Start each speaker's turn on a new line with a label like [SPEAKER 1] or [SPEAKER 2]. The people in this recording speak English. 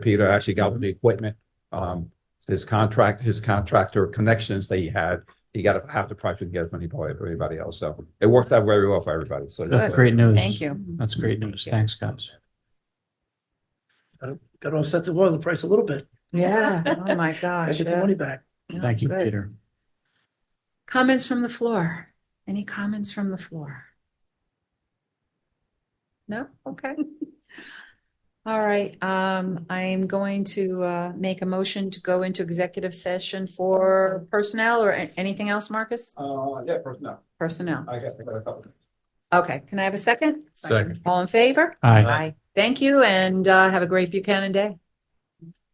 [SPEAKER 1] Peter actually got the equipment. Um, his contract, his contractor connections that he had, he got half the price we can get from anybody, everybody else. So it worked out very well for everybody. So
[SPEAKER 2] That's great news.
[SPEAKER 3] Thank you.
[SPEAKER 2] That's great news. Thanks, guys.
[SPEAKER 4] Got to offset the oil price a little bit.
[SPEAKER 3] Yeah, oh my
[SPEAKER 4] I
[SPEAKER 3] gosh.
[SPEAKER 4] get the
[SPEAKER 3] yeah.
[SPEAKER 4] money back.
[SPEAKER 3] Yeah,
[SPEAKER 2] Thank you,
[SPEAKER 3] good.
[SPEAKER 2] Peter.
[SPEAKER 5] Comments from the floor? Any comments from the floor?
[SPEAKER 3] No, okay.
[SPEAKER 5] All right, um, I am going to, uh, make a motion to go into executive session for personnel or a- anything else, Marcus?
[SPEAKER 1] Uh, yeah, personnel.
[SPEAKER 5] Personnel.
[SPEAKER 1] I got, I got a couple.
[SPEAKER 5] Okay, can I have a second?
[SPEAKER 2] Second.
[SPEAKER 5] All in favor?
[SPEAKER 2] Aye.
[SPEAKER 5] Thank you and, uh, have a great Buchanan day.